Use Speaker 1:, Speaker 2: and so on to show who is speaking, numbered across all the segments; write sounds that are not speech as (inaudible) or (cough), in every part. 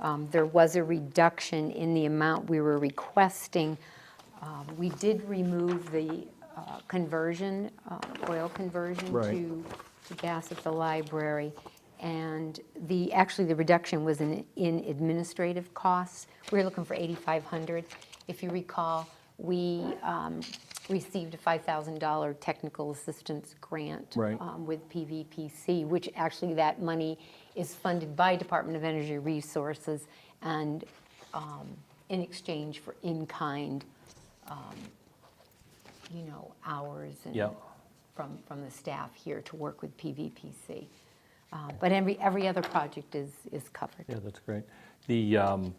Speaker 1: Um, There was a reduction in the amount we were requesting. Um, We did remove the uh, conversion, uh, oil conversion
Speaker 2: Right.
Speaker 1: to to gas at the library. And the, actually, the reduction was in in administrative costs. We were looking for 8,500. If you recall, we um, received a $5,000 technical assistance grant
Speaker 2: Right.
Speaker 1: um, with PVPC, which actually that money is funded by Department of Energy Resources and um, in exchange for in-kind, um, you know, hours and
Speaker 2: Yep.
Speaker 1: from, from the staff here to work with PVPC. Uh, But every, every other project is, is covered.
Speaker 2: Yeah, that's great. The um,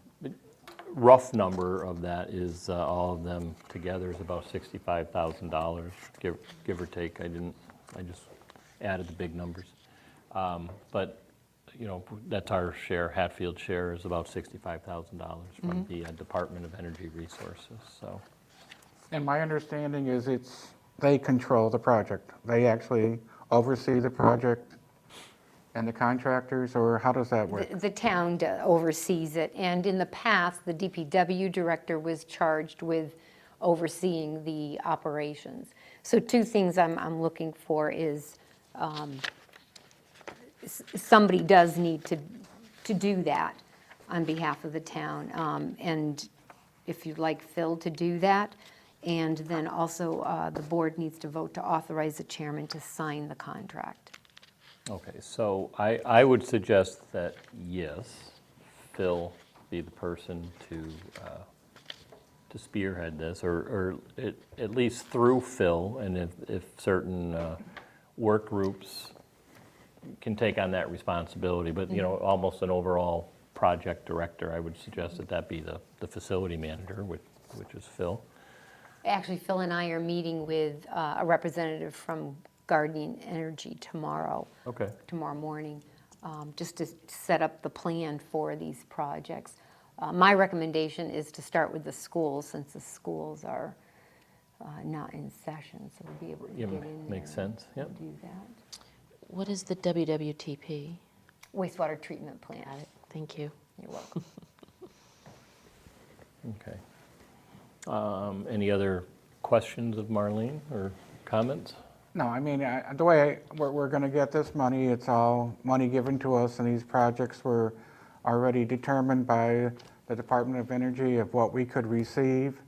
Speaker 2: rough number of that is, uh, all of them together is about $65,000, give give or take. I didn't, I just added the big numbers. Um, But, you know, that's our share, Hatfield share is about $65,000 from the uh, Department of Energy Resources, so.
Speaker 3: And my understanding is it's, they control the project. They actually oversee the project and the contractors, or how does that work?
Speaker 1: The- The town d- oversees it, and in the past, the DPW director was charged with overseeing the operations. So two things I'm, I'm looking for is, um, s- somebody does need to, to do that on behalf of the town. Um, And if you'd like Phil to do that, and then also uh, the board needs to vote to authorize the chairman to sign the contract.
Speaker 2: Okay, so I, I would suggest that, yes, Phil be the person to, uh, to spearhead this, or, or at, at least through Phil, and if, if certain uh, work groups can take on that responsibility, but, you know, almost an overall project director, I would suggest that that be the, the facility manager, which, which is Phil.
Speaker 1: Actually, Phil and I are meeting with uh, a representative from Guardian Energy tomorrow,
Speaker 2: Okay.
Speaker 1: tomorrow morning, um, just to set up the plan for these projects. Uh, My recommendation is to start with the schools, since the schools are uh, not in session, so we'll be able to
Speaker 2: Yeah,
Speaker 1: get in there.
Speaker 2: makes sense,
Speaker 1: and
Speaker 2: yep.
Speaker 1: Do that.
Speaker 4: What is the WWTP?
Speaker 1: Wastewater treatment plant.
Speaker 4: Thank you.
Speaker 1: You're welcome.
Speaker 2: Okay. Um, Any other questions of Marlene or comments?
Speaker 3: No, I mean, I- the way, I- we're, we're going to get this money, it's all money given to us, and these projects were already determined by the Department of Energy of what we could receive,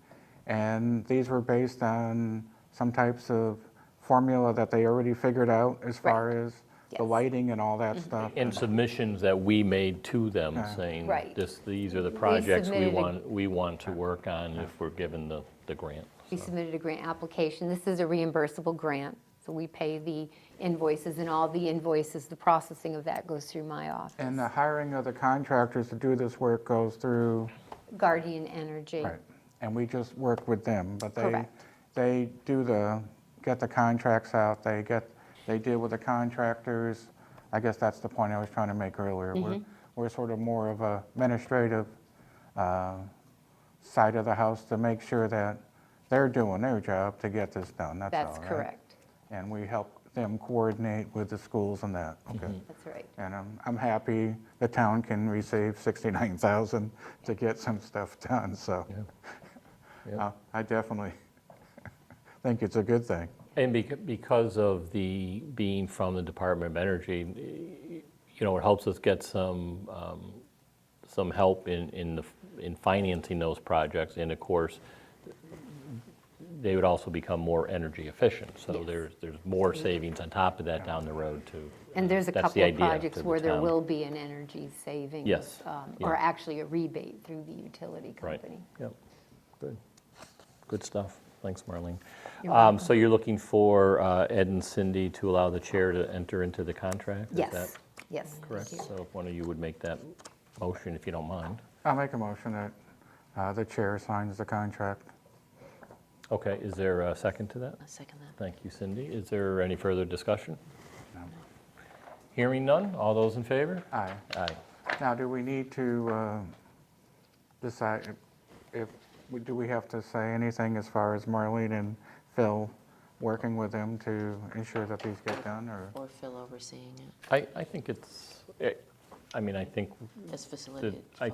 Speaker 3: and these were based on some types of formula that they already figured out as far as the
Speaker 1: Yes. Mm-hmm.
Speaker 3: lighting and all that stuff.
Speaker 2: And submissions that we made to them saying,
Speaker 1: Right.
Speaker 2: this, these are the projects we
Speaker 1: submitted a-
Speaker 2: want, we want to work on if we're given the, the grant.
Speaker 1: We submitted a grant application. This is a reimbursable grant, so we pay the invoices, and all the invoices, the processing of that goes through my office.
Speaker 3: And uh, the hiring of the contractors to do this work goes through,
Speaker 1: Guardian Energy.
Speaker 3: right, and we just work with them, but they,
Speaker 1: Correct.
Speaker 3: they do the, get the contracts out, they get, they deal with the contractors. I guess that's the point I was trying to make earlier. We're,
Speaker 1: Mm-hmm.
Speaker 3: we're sort of more of a administrative uh, side of the house to make sure that they're doing their job to get this done, that's all,
Speaker 1: That's
Speaker 3: right?
Speaker 1: correct.
Speaker 3: And we help them coordinate with the schools and that, okay?
Speaker 1: That's right.
Speaker 3: And I'm, I'm happy the town can receive 69,000 to get some stuff done, so
Speaker 2: Yeah.
Speaker 3: uh, I definitely (laughs) think it's a good thing.
Speaker 2: And becau- because of the, being from the Department of Energy, you know, it helps us get some, um, some help in, in the, in financing those projects. And of course, they would also become more energy efficient. So
Speaker 1: Yes.
Speaker 2: there's, there's more savings on top of that down the road too.
Speaker 1: And there's a
Speaker 2: That's
Speaker 1: couple
Speaker 2: the
Speaker 1: of
Speaker 2: idea
Speaker 1: projects
Speaker 2: to the
Speaker 1: where there
Speaker 2: town.
Speaker 1: will be an energy savings.
Speaker 2: Yes,
Speaker 1: um,
Speaker 2: yeah.
Speaker 1: Or actually a rebate through the utility
Speaker 2: Right.
Speaker 1: company.
Speaker 2: Yep. Good. Good stuff. Thanks, Marlene.
Speaker 1: You're
Speaker 2: Um, So you're looking for uh, Ed and Cindy to allow the chair to enter into the contract? Is that
Speaker 1: Yes, yes. thank
Speaker 2: Correct.
Speaker 1: you.
Speaker 2: So if one of you would make that motion, if you don't mind.
Speaker 3: I'll make a motion that uh, the chair signs the contract.
Speaker 2: Okay, is there a second to that?
Speaker 4: I second that.
Speaker 2: Thank you, Cindy. Is there any further discussion? Hearing none. All those in favor?
Speaker 3: Aye.
Speaker 2: Aye.
Speaker 3: Now, do we need to uh, decide if- if, we- do we have to say anything as far as Marlene and Phil working with them to ensure that these get done, or?
Speaker 4: Or Phil overseeing it
Speaker 2: eh, I, I think it's, I- I mean, I think
Speaker 4: as
Speaker 2: the,
Speaker 4: facilitated.
Speaker 2: I